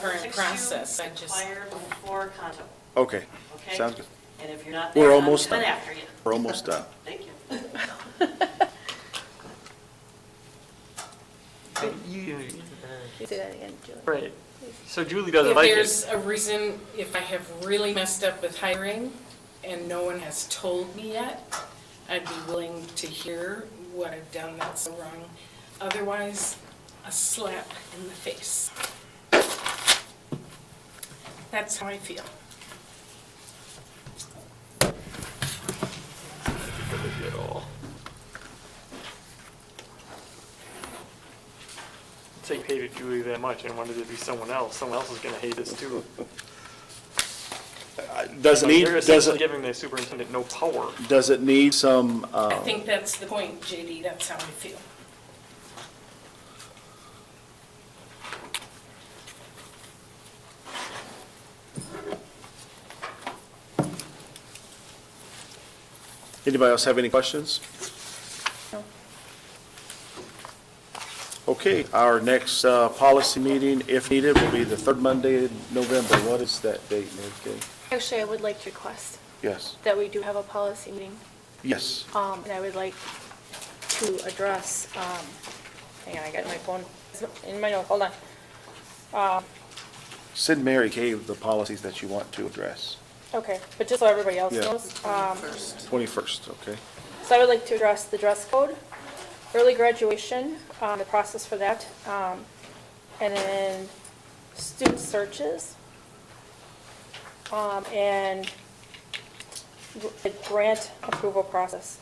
current Text you, process, I just- Inquire before condo, Okay, okay? Sounds good. And if you're not We're there, I'm almost coming done. after you. we're almost done. Thank you. You, Say that again, Julie. right. So Julie doesn't If like there's it. a reason, if I have really messed up with hiring and no one has told me yet, I'd be willing to hear what I've done that's wrong. Otherwise, a slap in the face. That's how I feel. At all. Say you hated Julie that much and wanted it to be someone else. Someone else is gonna hate us too. Uh, Does So it need, you're does essentially it, giving the superintendent no power. does it need some, uh, I think that's the point, JD, that's how I feel. anybody else have any questions? Okay, our next uh, policy meeting, if needed, will be the third Monday in November. What is that date, Mary Kay? Actually, I would like to request Yes, that we do have a policy meeting, yes. um, and I would like to address, um, hang on, I got my phone, in my note, hold on. Um, Send Mary Kay the policies that you want to address. Okay, but just so everybody else Yeah. knows, um, 21st, okay? so I would like to address the dress code, early graduation, um, the process for that, um, and then student searches, um, and gr- the grant approval process.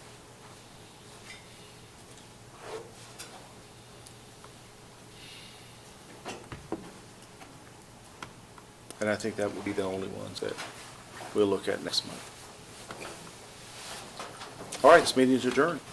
And I think that would be the only ones that we'll look at next month. All right, this meeting is adjourned.